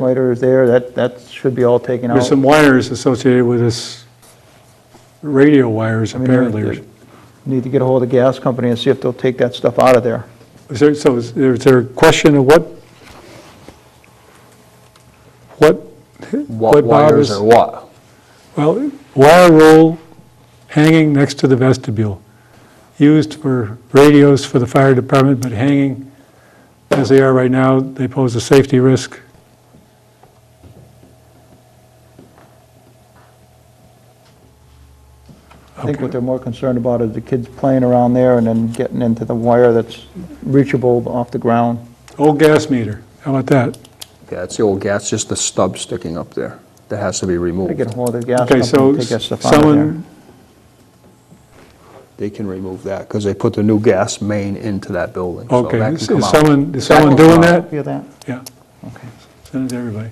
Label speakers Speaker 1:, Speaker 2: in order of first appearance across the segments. Speaker 1: Later is there, that, that should be all taken out.
Speaker 2: There's some wires associated with this, radio wires
Speaker 1: I mean, we
Speaker 2: apparently.
Speaker 1: Need to get a hold of the gas company and see if they'll take that stuff out of there.
Speaker 2: Is there, so is there- is there a question of what, what,
Speaker 3: What
Speaker 2: what Bob
Speaker 3: wires
Speaker 2: is?
Speaker 3: or what?
Speaker 2: Well, wire roll hanging next to the vestibule, used for radios for the fire department, but hanging as they are right now, they pose a safety risk.
Speaker 1: I think what they're more concerned about is the kids playing around there and then getting into the wire that's reachable off the ground.
Speaker 2: Old gas meter, how about that?
Speaker 3: Yeah, it's the old gas, just the stub sticking up there that has to be
Speaker 1: Gotta get
Speaker 3: removed.
Speaker 1: a hold of the gas
Speaker 2: Okay,
Speaker 1: company
Speaker 2: so
Speaker 1: and take that stuff out of there.
Speaker 2: someone,
Speaker 3: They can remove that because they put the new gas main into that building. so
Speaker 2: okay,
Speaker 3: that can
Speaker 2: is
Speaker 3: come
Speaker 2: is
Speaker 3: out.
Speaker 2: someone, is
Speaker 3: That
Speaker 2: someone
Speaker 3: can come
Speaker 2: doing
Speaker 3: out.
Speaker 2: that?
Speaker 1: Feel that?
Speaker 2: Yeah,
Speaker 1: Okay.
Speaker 2: send it to everybody.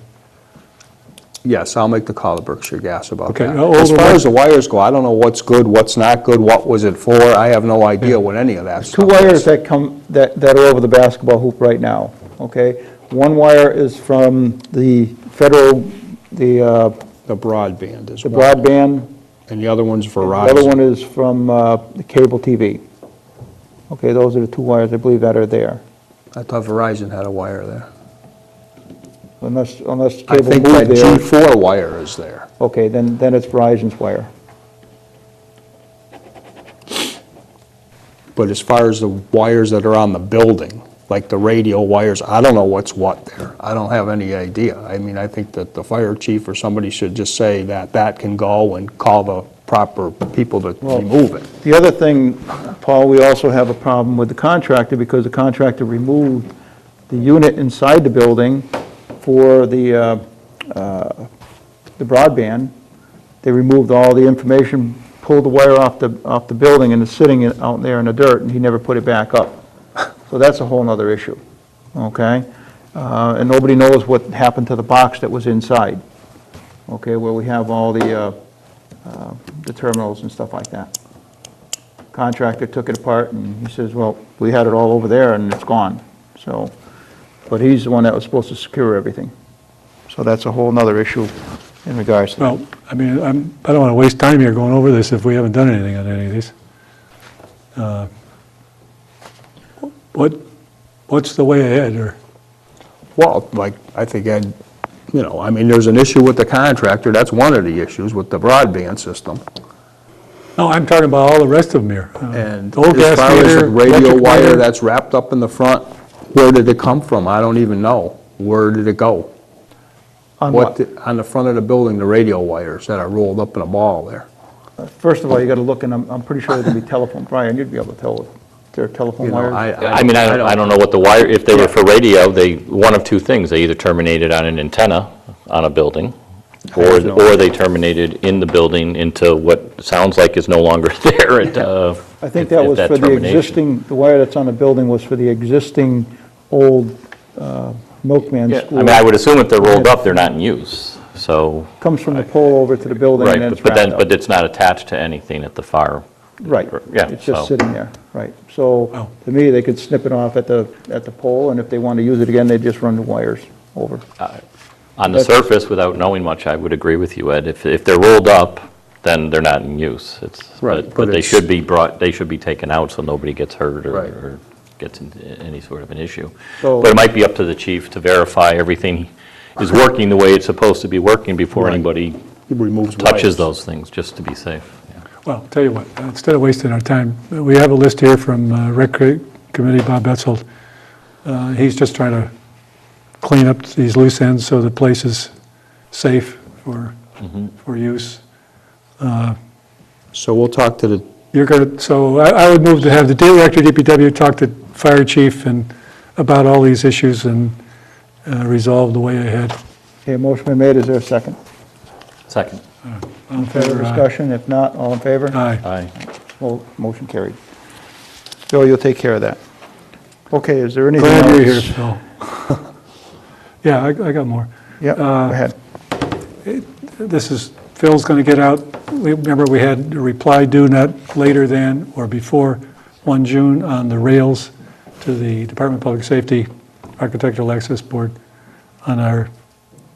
Speaker 3: Yes, I'll make the call to Berkshire Gas about
Speaker 2: Okay,
Speaker 3: that.
Speaker 2: now, all
Speaker 3: As
Speaker 2: the
Speaker 3: far
Speaker 2: way-
Speaker 3: as the wires go, I don't know what's good, what's not good, what was it for? I have no idea what any of that
Speaker 1: Two
Speaker 3: stuff is.
Speaker 1: wires that come, that, that are over the basketball hoop right now, okay? One wire is from the federal, the uh,
Speaker 3: The broadband is
Speaker 1: the
Speaker 3: one,
Speaker 1: broadband
Speaker 3: and the other one's Verizon.
Speaker 1: The other one is from uh, the cable TV. Okay, those are the two wires, I believe, that are there,
Speaker 3: I thought Verizon had a wire there.
Speaker 1: unless, unless
Speaker 3: I
Speaker 1: cable
Speaker 3: think that
Speaker 1: moved there.
Speaker 3: G4 wire is there.
Speaker 1: Okay, then, then it's Verizon's wire.
Speaker 3: But as far as the wires that are on the building, like the radio wires, I don't know what's what there. I don't have any idea. I mean, I think that the fire chief or somebody should just say that that can go and call the proper people to remove it.
Speaker 1: The other thing, Paul, we also have a problem with the contractor, because the contractor removed the unit inside the building for the, uh, uh, the broadband. They removed all the information, pulled the wire off the, off the building, and it's sitting in- out there in the dirt, and he never put it back up. So that's a whole nother issue, okay? Uh, And nobody knows what happened to the box that was inside, okay, where we have all the, uh, uh, the terminals and stuff like that contractor took it apart, and he says, well, we had it all over there, and it's gone, so, but he's the one that was supposed to secure everything. So that's a whole nother issue in regards to that.
Speaker 2: Well, I mean, I'm, I don't want to waste time here going over this if we haven't done anything on any of these. Uh, What, what's the way ahead, or,
Speaker 3: Well, like, I think I'd, you know, I mean, there's an issue with the contractor, that's one of the issues with the broadband system.
Speaker 2: no, I'm talking about all the rest of them here. Uh,
Speaker 3: And
Speaker 2: old
Speaker 3: as
Speaker 2: gas
Speaker 3: far as the
Speaker 2: meter,
Speaker 3: radio
Speaker 2: electric
Speaker 3: wire
Speaker 2: meter.
Speaker 3: that's wrapped up in the front, where did it come from? I don't even know. Where did it go?
Speaker 1: On
Speaker 3: What,
Speaker 1: what?
Speaker 3: the- on the front of the building, the radio wires that are rolled up in a ball there.
Speaker 1: First of all, you gotta look, and I'm, I'm pretty sure there'll be telephone, Brian, you'd be able to tell if there are telephone
Speaker 3: You know,
Speaker 1: wires.
Speaker 4: I mean, I don't, I don't know what the wire, if they were for radio, they, one of two things, they either terminated on an antenna on a building, or,
Speaker 3: have no
Speaker 4: or they terminated in the building into what sounds like is no longer there at, uh.
Speaker 1: I think
Speaker 4: if-
Speaker 1: that
Speaker 4: if
Speaker 1: was for the
Speaker 4: termination.
Speaker 1: existing, the wire that's on the building was for the existing old uh, milkman
Speaker 4: Yeah, I
Speaker 1: school.
Speaker 4: mean, I would assume if they're rolled up, they're not in use, so,
Speaker 1: Comes from the pole over to the building,
Speaker 4: right,
Speaker 1: and then it's
Speaker 4: but but then,
Speaker 1: wrapped up.
Speaker 4: but it's not attached to anything at the fire.
Speaker 1: Right.
Speaker 4: Yeah,
Speaker 1: It's just
Speaker 4: so-
Speaker 1: sitting there, right. So,
Speaker 2: Wow.
Speaker 1: to me, they could snip it off at the, at the pole, and if they want to use it again, they just run the wires over.
Speaker 4: Uh, On the
Speaker 1: That's-
Speaker 4: surface, without knowing much, I would agree with you, Ed. If, if they're rolled up, then they're not in use. It's,
Speaker 3: Right,
Speaker 4: but-
Speaker 3: but
Speaker 4: but they
Speaker 3: it's-
Speaker 4: should be brought, they should be taken out so nobody gets hurt or-
Speaker 3: Right.
Speaker 4: or gets into any sort of an issue.
Speaker 1: So-
Speaker 4: But it might be up to the chief to verify everything is working the way it's supposed to be working before
Speaker 3: Right.
Speaker 4: anybody
Speaker 3: It removes
Speaker 4: touches
Speaker 3: wires.
Speaker 4: those things, just to be safe. Yeah.
Speaker 2: Well, tell you what, instead of wasting our time, we have a list here from uh, Rec Committee, Bob Betzold. Uh, He's just trying to clean up these loose ends so the place is safe for,
Speaker 3: Mm-hmm.
Speaker 2: for use.
Speaker 3: So we'll talk to the,
Speaker 2: You're going to, so I I would move to have the director, DPW, talk to fire chief and about all these issues and uh, resolve the way ahead.
Speaker 1: Okay, motion been made, is there a second?
Speaker 4: Second.
Speaker 2: All in
Speaker 1: Further
Speaker 2: favor, aye.
Speaker 1: discussion, if not, all in favor?
Speaker 2: Uh, Aye.
Speaker 4: Aye.
Speaker 1: Well, motion carried. Bill, you'll take care of that. Okay, is there anything else?
Speaker 2: Glad you're here, Phil. Yeah, I I got more.
Speaker 1: Yep, go ahead.
Speaker 2: This is, Phil's going to get out, we- remember we had a reply due not later than or before 1 June on the rails to the Department of Public Safety Architectural Access Board on our